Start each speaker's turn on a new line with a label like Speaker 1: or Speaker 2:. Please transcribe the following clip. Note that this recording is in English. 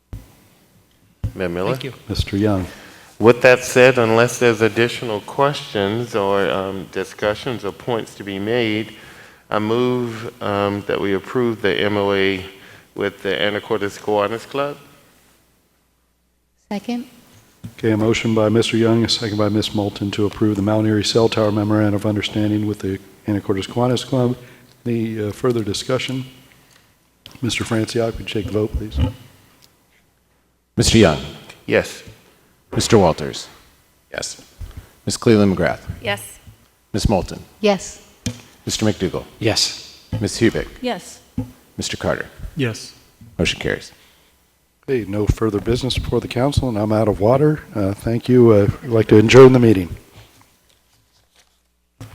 Speaker 1: Mayor Miller?
Speaker 2: Thank you.
Speaker 3: Mr. Young.
Speaker 1: With that said, unless there's additional questions or um, discussions or points to be made, I move um, that we approve the MOA with the Anacortes Kiwanis Club.
Speaker 4: Second?
Speaker 3: Okay, a motion by Mr. Young, a second by Ms. Moulton to approve the Mount Airy Cell Tower Memorandum of Understanding with the Anacortes Kiwanis Club. Any uh, further discussion? Mr. Franciac, would you take the vote, please?
Speaker 5: Mr. Young,
Speaker 1: Yes.
Speaker 5: Mr. Walters,
Speaker 6: Yes.
Speaker 5: Ms. Cleland McGrath,
Speaker 4: Yes.
Speaker 5: Ms. Moulton,
Speaker 4: Yes.
Speaker 5: Mr. McDougall,
Speaker 6: Yes.
Speaker 5: Ms. Hubick,
Speaker 4: Yes.
Speaker 5: Mr. Carter.
Speaker 2: Yes.
Speaker 5: Motion carries.
Speaker 3: Okay, no further business before the council, and I'm out of water. Uh, Thank you. Uh, I'd like to adjourn the meeting.